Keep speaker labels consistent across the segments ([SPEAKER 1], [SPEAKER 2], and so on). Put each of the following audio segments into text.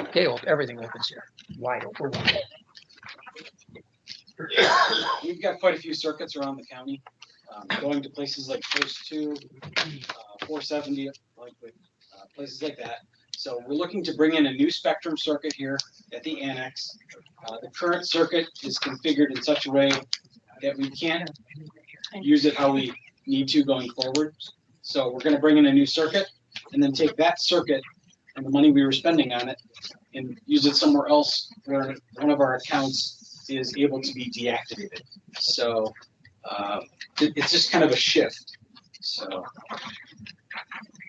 [SPEAKER 1] Okay, well, everything opens here, wide open.
[SPEAKER 2] We've got quite a few circuits around the county, um, going to places like Post Two, uh, four seventy, like, with, uh, places like that. So we're looking to bring in a new spectrum circuit here at the annex. Uh, the current circuit is configured in such a way that we can't use it how we need to going forward. So we're gonna bring in a new circuit and then take that circuit and the money we were spending on it and use it somewhere else where one of our accounts is able to be deactivated. So, uh, it- it's just kind of a shift. So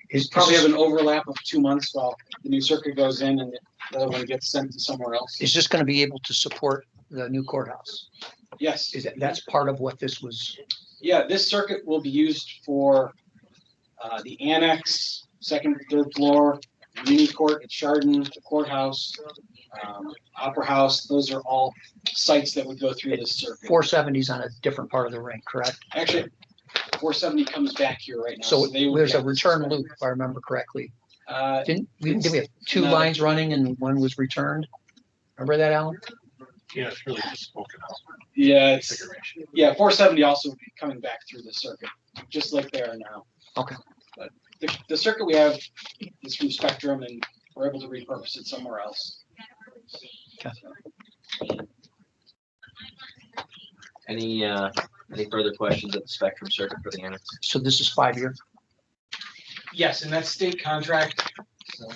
[SPEAKER 1] Is
[SPEAKER 2] probably have
[SPEAKER 1] probably,
[SPEAKER 2] an overlap of two months while the new circuit goes in and the other one gets sent to somewhere else.
[SPEAKER 1] is this gonna be able to support the new courthouse?
[SPEAKER 2] Yes,
[SPEAKER 1] Is that, that's part of what this was,
[SPEAKER 2] yeah, this circuit will be used for uh, the annex, second, third floor, mini court at Chardon, the courthouse, um, Opera House. Those are all sites that would go through this circuit.
[SPEAKER 1] four seventies on a different part of the ring, correct?
[SPEAKER 2] Actually, four seventy comes back here right now.
[SPEAKER 1] So
[SPEAKER 2] they would
[SPEAKER 1] there's a
[SPEAKER 2] have-
[SPEAKER 1] return loop, if I remember correctly.
[SPEAKER 2] Uh,
[SPEAKER 1] Didn't, we, did we have two
[SPEAKER 2] No.
[SPEAKER 1] lines running and one was returned? Remember that, Alan?
[SPEAKER 3] Yeah, it's really just spoken out
[SPEAKER 2] Yeah, it's,
[SPEAKER 3] configuration.
[SPEAKER 2] Yeah, four seventy also would be coming back through the circuit, just like they are now.
[SPEAKER 1] Okay.
[SPEAKER 2] But the, the circuit we have is from Spectrum and we're able to repurpose it somewhere else.
[SPEAKER 1] Okay.
[SPEAKER 4] Any, uh, any further questions at the Spectrum Circuit for the annex?
[SPEAKER 1] So this is five year.
[SPEAKER 2] Yes, and that's state contract. So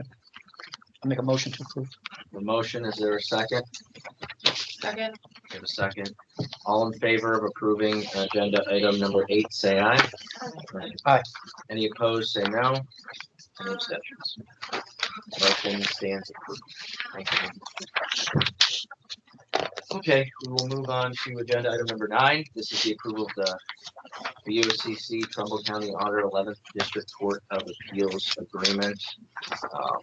[SPEAKER 1] I'll make a motion to approve.
[SPEAKER 4] The motion, is there a second?
[SPEAKER 5] Second.
[SPEAKER 4] Give a second. All in favor of approving agenda item number eight, say aye.
[SPEAKER 1] Aye.
[SPEAKER 4] Any opposed, say no. Any abstentions? Motion stands approved. Thank you. Okay, we will move on to agenda item number nine. This is the approval of the BOCC Trumbull County Auditor Eleventh District Court of Appeals Agreement. Um,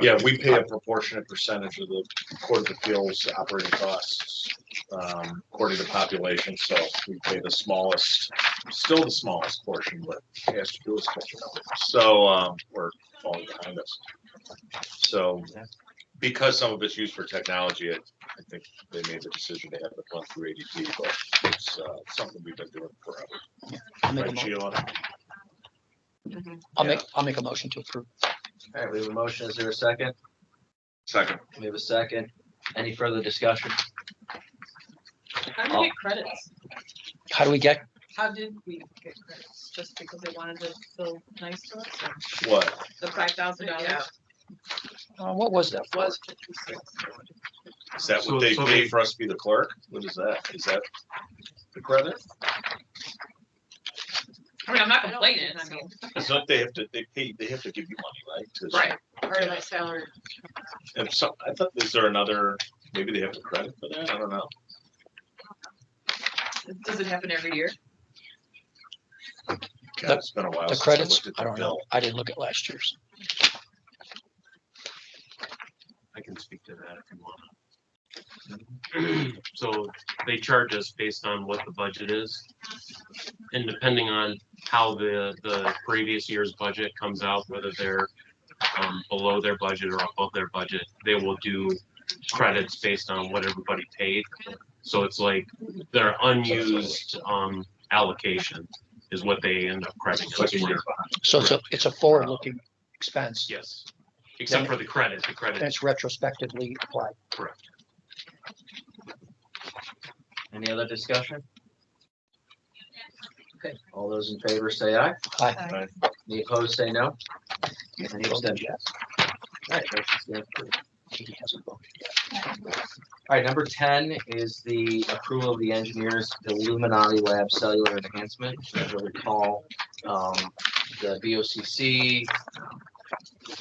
[SPEAKER 3] Yeah, we pay a proportionate percentage of the Court of Appeals operating costs, um, according to population, so we pay the smallest, still the smallest portion, but it has to do with special numbers. So, um, we're falling behind us. So, because some of it's used for technology, it- I think they made the decision to have it run through ADP, but it's, uh, something we've been doing forever.
[SPEAKER 1] I'll make a
[SPEAKER 3] Right,
[SPEAKER 1] mo-
[SPEAKER 3] Sheila?
[SPEAKER 1] I'll make, I'll make a motion to approve.
[SPEAKER 4] All right, we have a motion. Is there a second?
[SPEAKER 3] Second.
[SPEAKER 4] We have a second. Any further discussion?
[SPEAKER 5] How do we get credits?
[SPEAKER 1] How do we get,
[SPEAKER 5] How did we get credits? Just because they wanted to feel nice to us? or
[SPEAKER 3] What?
[SPEAKER 5] The five thousand dollars
[SPEAKER 1] uh, what was that?
[SPEAKER 5] was fifty-six.
[SPEAKER 3] Is that
[SPEAKER 6] So-
[SPEAKER 3] what they
[SPEAKER 6] so
[SPEAKER 3] pay
[SPEAKER 6] they-
[SPEAKER 3] for us to be the clerk? What is that? Is that the credit?
[SPEAKER 5] I mean, I'm not complaining, I mean.
[SPEAKER 3] It's not, they have to, they pay, they have to give you money, right? To-
[SPEAKER 5] Part of my salary.
[SPEAKER 3] And so, I thought, is there another, maybe they have a credit for that? I don't know.
[SPEAKER 5] Does it happen every year?
[SPEAKER 3] God, it's been a while.
[SPEAKER 1] The
[SPEAKER 3] since I
[SPEAKER 1] credits?
[SPEAKER 3] looked
[SPEAKER 1] I
[SPEAKER 3] at the
[SPEAKER 1] don't know.
[SPEAKER 3] bill.
[SPEAKER 1] I didn't look at last year's.
[SPEAKER 6] I can speak to that if you want. So they charge us based on what the budget is. And depending on how the, the previous year's budget comes out, whether they're um, below their budget or above their budget, they will do credits based on what everybody paid. So it's like their unused, um, allocation is what they end up crediting
[SPEAKER 3] It's like
[SPEAKER 6] us
[SPEAKER 3] a
[SPEAKER 6] for.
[SPEAKER 3] year behind.
[SPEAKER 1] So it's a, it's a forward-looking expense
[SPEAKER 6] Yes, except for the credit, the
[SPEAKER 1] and
[SPEAKER 6] credit
[SPEAKER 1] it's retrospectively applied.
[SPEAKER 4] Any other discussion? Okay, all those in favor say aye.
[SPEAKER 1] Aye.
[SPEAKER 4] Any opposed, say no. Any abstentions? All right, motion stands approved.
[SPEAKER 1] He hasn't voted.
[SPEAKER 4] All right, number ten is the approval of the engineers Illuminati Lab Cellular Enhancement. As I recall, um, the BOCC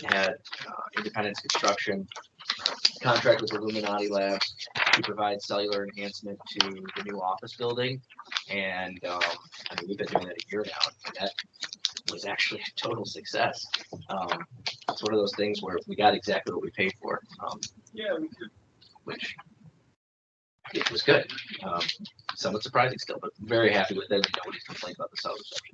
[SPEAKER 4] had uh, Independence Construction contract with Illuminati Labs to provide cellular enhancement to the new office building. And, um, I mean, we've been doing that a year now, and that was actually a total success. Um, it's one of those things where we got exactly what we paid for. Um,
[SPEAKER 2] Yeah, we
[SPEAKER 4] which it was good. Um, somewhat surprising still, but very happy with it. Nobody's complained about the sound reception.